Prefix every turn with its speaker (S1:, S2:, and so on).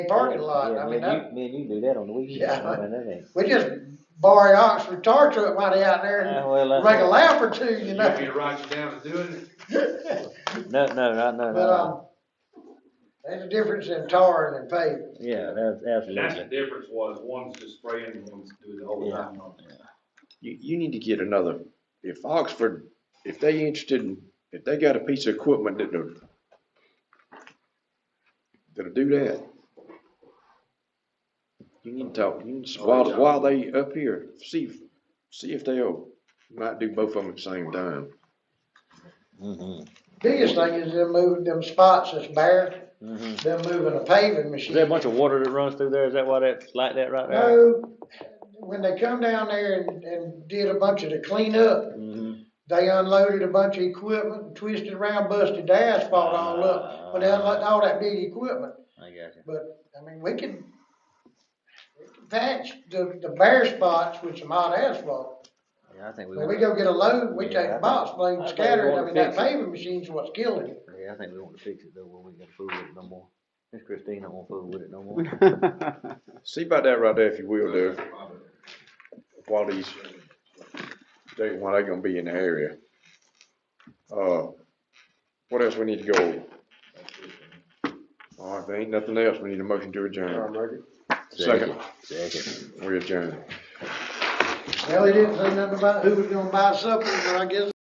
S1: parking lot,
S2: Yeah,
S1: I
S2: me
S1: mean,
S2: and
S1: that,
S2: you- Me and you do that on the weekend,
S1: Yeah.
S2: I mean, that ain't.
S1: we just borrow Oxford tar truck money out there and
S2: Uh, well, that's
S1: make a
S2: it.
S1: laugh or two, you
S3: You
S1: know?
S3: want me to write you down to doing it?
S2: No, no, no,
S1: But,
S2: no, no,
S1: um, there's a difference in tar and in paving.
S2: yeah, that's
S3: And that's the
S2: absolutely.
S3: difference was one's just spraying and one's doing the whole
S2: Yeah.
S3: time on it.
S4: You, you need to get another, if Oxford, if they interested in, if they got a piece of equipment that will that'll do that. You need to talk, you need, to- while, while they up here, see, if- see if they'll, might do both of them at the same time.
S2: Mhm,
S1: Biggest thing is them moving them spots that's bare,
S2: mhm.
S1: them moving a paving
S2: Is there a
S1: machine.
S2: bunch of water that runs through there? Is that why that's like that right there?
S1: No, when they come down there and, and did a bunch of the cleanup,
S2: Mhm.
S1: they unloaded a bunch of equipment, twisted around, busted the asphalt all up, when they unloaded all that big equipment.
S2: I got you.
S1: But, I mean, we can, we can patch the, the bare spots with some hot asphalt.
S2: Yeah, I think we
S1: When we
S2: want,
S1: go get a load, we
S2: Yeah, I
S1: take a
S2: think-
S1: box blade,
S2: I
S1: and
S2: think
S1: scatter
S2: we
S1: it, I
S2: ought
S1: mean,
S2: to
S1: that
S2: fix it.
S1: paving machine's what's killing it.
S2: yeah, I think we want to fix it though, where we ain't gonna fool with it no more. Miss Christine don't wanna fool with it no more.
S4: See about that right there if you will, Doug, while these, they, while they gonna be in the area. Uh, what else we need to go over? All right, if there ain't nothing else, we need a motion to adjourn. Second,
S2: Second.
S4: we adjourn.
S1: Well, he didn't say nothing about who was gonna buy supper, but I guess